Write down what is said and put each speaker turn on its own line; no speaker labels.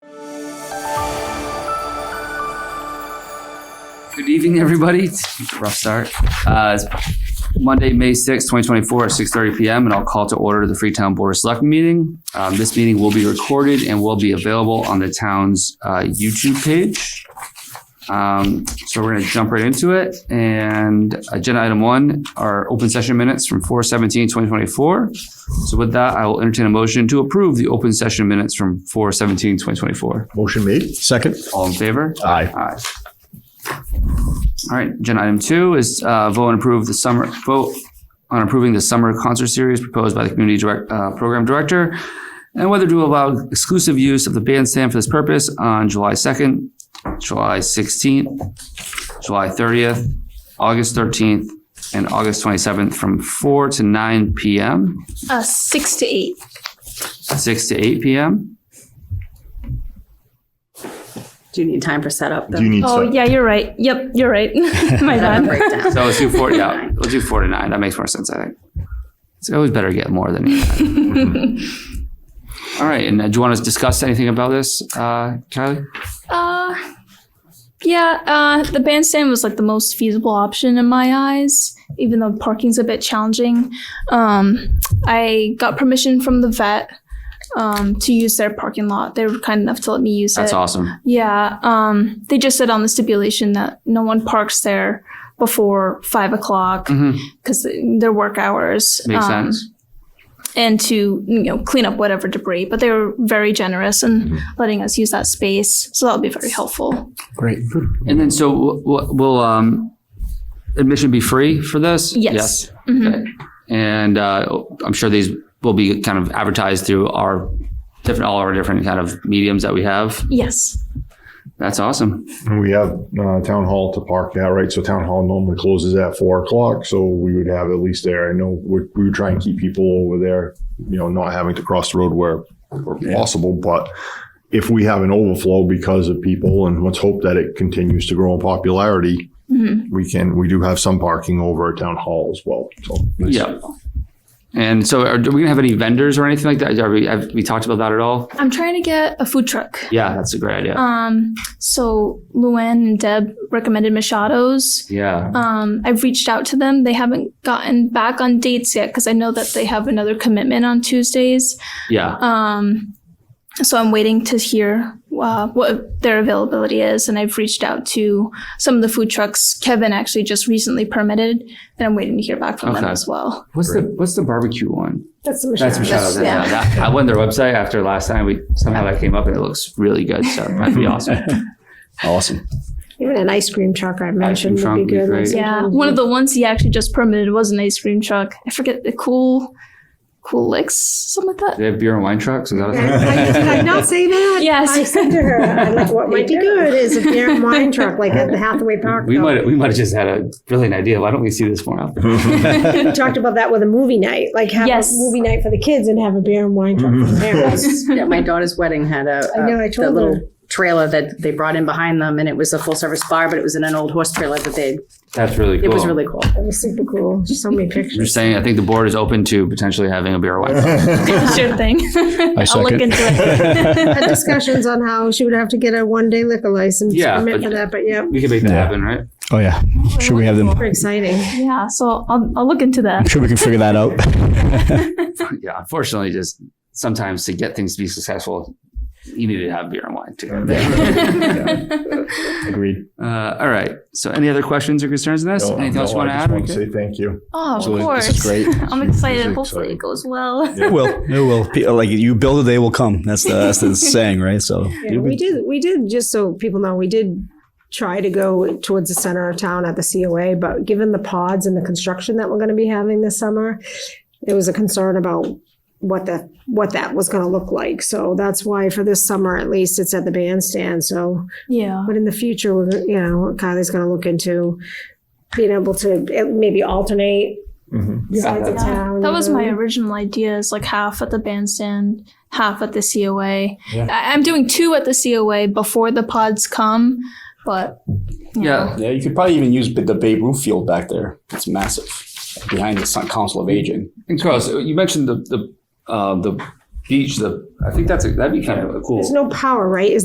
Good evening, everybody. Rough start. Uh, it's Monday, May sixth, twenty 2024, at 6:30 PM, and I'll call to order the Freetown Board of Selectmen meeting. Um, This meeting will be recorded and will be available on the town's uh, YouTube page. Um, So we're going to jump right into it. And agenda item one are open session minutes from 4/17/2024. So with that, I will entertain a motion to approve the open session minutes from 4/17/2024.
Motion made. Second.
All in favor?
Aye.
Aye. All right, agenda item two is uh, vote and approve the summer, vote on approving the summer concert series proposed by the community direct, uh, program director and whether to allow exclusive use of the bandstand for this purpose on July 2nd, July 16th, July 30th, August 13th, and August 27th from 4 to 9 PM,
Uh, six to eight.
6 to 8 PM.
Do you need time for setup? though?
Do you need
Oh,
some?
yeah, you're right. Yep, you're right. My
Setup
bad.
Oh,
breakdown.
So let's do 4, yeah, we'll do 4 to 9. That makes more sense, I think. It's always better to get more than you. All right, and uh, do you want to discuss anything about this, uh, Kylie?
Uh, yeah, uh, the bandstand was like the most feasible option in my eyes, even though parking's a bit challenging. Um, I got permission from the vet um, to use their parking lot. They were kind enough to let me use
That's
it.
awesome.
Yeah, um, they just said on the stipulation that no one parks there before five o'clock
Mhm.
because their work hours.
Makes
um,
sense.
and to you know clean up whatever debris. But they were very generous in letting us use that space, so that'll be very helpful.
Great.
And then, so w- w- will um, admission be free for this?
Yes.
Okay. And uh, I'm sure these will be kind of advertised through our different, all our different kind of mediums that we have.
Yes.
That's awesome.
And we have uh, town hall to park that, right? So town hall normally closes at four o'clock. So we would have at least there. I know we we would try and keep people over there, you know, not having to cross the road where where possible. But if we have an overflow because of people, and let's hope that it continues to grow in popularity,
Mm-hmm.
we can we do have some parking over at town hall as well. So that's-
Yeah. And so, are, are we going to have any vendors or anything like that? Are we, have we talked about that at all?
I'm trying to get a food truck.
Yeah, that's a great idea.
Um, so Luann and Deb recommended Machado's.
yeah.
Um, I've reached out to them. They haven't gotten back on dates yet because I know that they have another commitment on Tuesdays.
Yeah.
Um, so I'm waiting to hear uh, what their availability is, and I've reached out to some of the food trucks. Kevin actually just recently permitted, and I'm waiting to hear back from them
Okay.
as well.
What's the what's the barbecue one?
That's the
That's
machine.
Michelle's. Yeah.
yeah.
that- I went to their website after last time. We somehow that came up and it looks really good. So that'd be awesome.
awesome.
Even an ice cream truck I mentioned
truck
would
would be
be good.
great.
Yeah, one of the ones he actually just permitted was an ice cream truck. I forget the cool, cool licks, something like that.
They have beer and wine trucks. Is that a
I, I- did I
thing?
not say that?
Yes.
I said to her, I like what might be good is a beer and wine truck like at the Hathaway Park.
we
though.
might we might have just had a brilliant idea. Why don't we see this more often?
We talked about that with a movie night, like have
Yes.
a movie night for the kids and have a beer and wine
Mm-hmm.
truck for the parents.
At my daughter's wedding had a,
I know, I
a the
told
little
her.
trailer that they brought in behind them, and it was a full service bar, but it was in an old horse trailer that they.
That's really cool.
It was really cool.
That was super cool. Just so many
You're
pictures.
saying I think the board is open to potentially having a beer and wine. truck.
sure thing. I'll look
second.
into it.
Had discussions on how she would have to get a one day liquor license
Yeah,
permit
but-
for that, but yeah,
We can make that
Yeah.
happen, right?
Oh yeah, sure we have them.
super exciting.
Yeah, so I'll, I'll look into that.
I'm sure we can figure that out.
Yeah. Unfortunately, just sometimes to get things to be successful, you need to have beer and wine too.
Agreed.
Uh, all right. So, any other questions or concerns in this?
No,
Anything
no,
else you want
I
to
just
add? We
wanted
good?
to say thank you.
Oh, of
So
course.
this is great.
I'm
This is
excited.
exciting.
Hopefully it goes well.
It will. It will. Pe- Like you build a day, will come. That's the that's the saying, right? So
Yeah, we did, we did, just so people know, we did try to go towards the center of town at the COA, but given the pods and the construction that we're gonna be having this summer, there was a concern about what that, what that was gonna look like. So that's why for this summer, at least, it's at the bandstand, so.
Yeah.
But in the future, we're, you know, Kylie's gonna look into being able to eh, maybe alternate
Mhm.
sides of
Yeah.
town.
That was my
you know?
original idea is like half at the bandstand, half at the COA. I- I'm doing two at the COA before the pods come, but you
Yeah.
know,
yeah, you could probably even use the Babe Ruth field back there. It's massive behind the Council of Aging.
And Carlos, you mentioned the the uh, the beach. The I think that's a, that'd be kind of a cool.
There's no power, right? Is